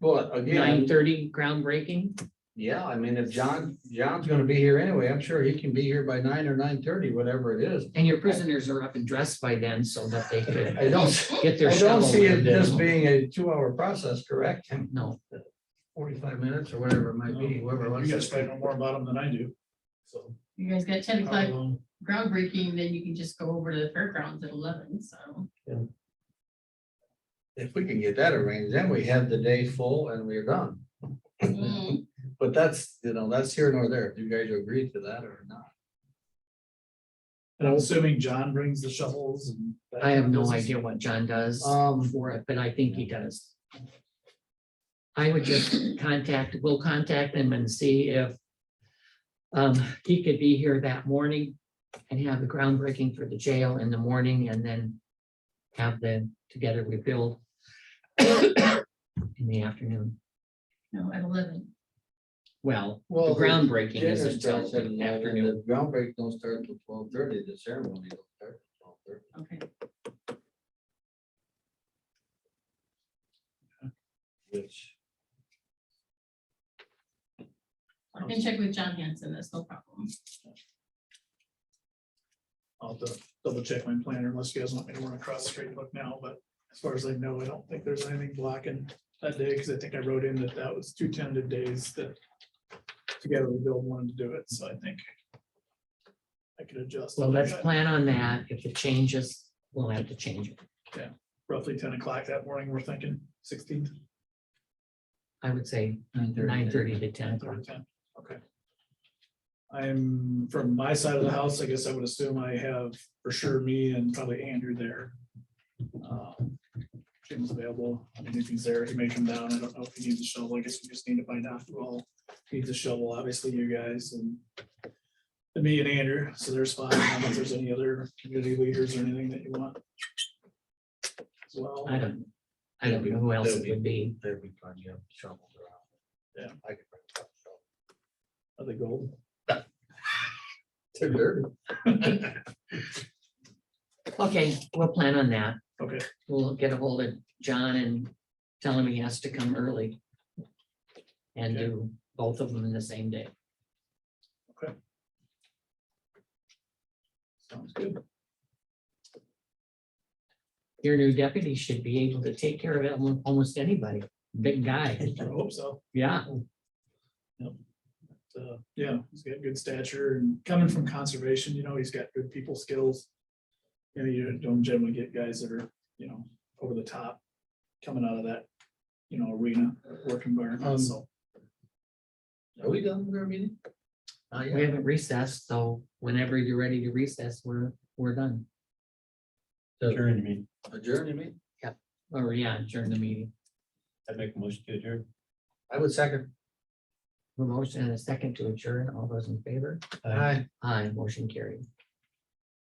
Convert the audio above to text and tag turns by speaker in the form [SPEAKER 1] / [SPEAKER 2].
[SPEAKER 1] Well,
[SPEAKER 2] nine
[SPEAKER 1] again,
[SPEAKER 2] thirty groundbreaking?
[SPEAKER 1] yeah, I mean, if John, John's gonna be here anyway, I'm sure he can be here by nine or nine thirty, whatever it is.
[SPEAKER 2] And your prisoners are up and dressed by then so that they could
[SPEAKER 1] I don't,
[SPEAKER 2] get their
[SPEAKER 1] I don't
[SPEAKER 2] shovel.
[SPEAKER 1] see it
[SPEAKER 2] and, uh,
[SPEAKER 1] this being a two-hour process, correct? And
[SPEAKER 2] No,
[SPEAKER 1] Forty-five minutes or whatever it might be, whoever
[SPEAKER 3] Oh, You
[SPEAKER 1] wants
[SPEAKER 3] guys probably
[SPEAKER 1] to.
[SPEAKER 3] know more about them than I do. So. Um,
[SPEAKER 4] You guys got ten
[SPEAKER 3] I
[SPEAKER 4] o'clock
[SPEAKER 3] don't know.
[SPEAKER 4] groundbreaking, then you can just go over to the fairgrounds at eleven, so.
[SPEAKER 1] If we can get that arranged, then we have the day full and we're done.
[SPEAKER 4] Mm,
[SPEAKER 1] But that's, you know, that's here nor there. If you guys agree to that or not.
[SPEAKER 3] And I'm assuming John brings the shovels and. that
[SPEAKER 2] I have
[SPEAKER 3] kind of
[SPEAKER 2] no
[SPEAKER 3] business.
[SPEAKER 2] idea what John does
[SPEAKER 1] Um,
[SPEAKER 2] for it, but I think he does. I would just contact, we'll contact him and see if um, he could be here that morning and have the groundbreaking for the jail in the morning and then have the Together We Build in the afternoon.
[SPEAKER 4] No, at eleven.
[SPEAKER 2] Well, the
[SPEAKER 1] well.
[SPEAKER 2] groundbreaking
[SPEAKER 1] dinner
[SPEAKER 2] is until
[SPEAKER 1] starts at
[SPEAKER 2] the
[SPEAKER 1] 11,
[SPEAKER 2] afternoon.
[SPEAKER 1] the Groundbreak don't start till twelve thirty, the ceremony don't start till twelve thirty.
[SPEAKER 4] Okay.
[SPEAKER 1] Which,
[SPEAKER 4] I can check with John Hanson, that's no problem.
[SPEAKER 3] I'll have to double check my planner unless you guys want me to run across the street and look now, but as far as I know, I don't think there's anything blocking that day, because I think I wrote in that that was two tentative days that together we build wanted to do it, so I think I could adjust.
[SPEAKER 2] Well,
[SPEAKER 3] I
[SPEAKER 2] let's
[SPEAKER 3] got
[SPEAKER 2] plan on that. If it changes, we'll have to change it.
[SPEAKER 3] Roughly ten o'clock that morning, we're thinking sixteenth,
[SPEAKER 2] I would say nine
[SPEAKER 1] 9:30.
[SPEAKER 2] thirty to ten
[SPEAKER 3] nine
[SPEAKER 2] o'clock.
[SPEAKER 3] thirty, ten, okay. I'm, from my side of the house, I guess I would assume I have for sure me and probably Andrew there. Uh, Jim's available, I mean, if he's there, he may come down, I don't know if he needs a shovel, I guess we just need to find out who all needs a shovel, obviously you guys and and me and Andrew, so there's five, I don't know if there's any other community leaders or anything that you want. as Well,
[SPEAKER 2] I don't, I don't know who else it would be.
[SPEAKER 1] There we go, you have shovels around.
[SPEAKER 3] Yeah.
[SPEAKER 1] I could bring a couple shovels.
[SPEAKER 3] are they gold?
[SPEAKER 1] They're dirty.
[SPEAKER 2] Okay, we'll plan on that.
[SPEAKER 3] Okay.
[SPEAKER 2] We'll get a hold of John and tell him he has to come early. And
[SPEAKER 3] Okay.
[SPEAKER 2] do both of them in the same day.
[SPEAKER 3] Sounds good.
[SPEAKER 2] Your new deputy should be able to take care of al- almost anybody. Big guy,
[SPEAKER 3] I hope so.
[SPEAKER 2] yeah.
[SPEAKER 3] uh, yeah, he's got good stature and coming from conservation, you know, he's got good people skills. You know, you don't generally get guys that are, you know, over the top coming out of that, you know, arena or work
[SPEAKER 1] Um,
[SPEAKER 3] environment, so.
[SPEAKER 1] Are we done with our meeting? Not
[SPEAKER 2] We
[SPEAKER 1] yet.
[SPEAKER 2] haven't recessed, so whenever you're ready to recess, we're, we're done.
[SPEAKER 5] Adjourn, you mean,
[SPEAKER 1] Adjourn, you mean?
[SPEAKER 2] Or yeah, during the meeting.
[SPEAKER 5] I make a motion to adjourn.
[SPEAKER 1] I would second.
[SPEAKER 2] A Motion and a second to adjourn. All those in favor?
[SPEAKER 5] Aye.
[SPEAKER 1] Aye.
[SPEAKER 2] Aye, motion carried.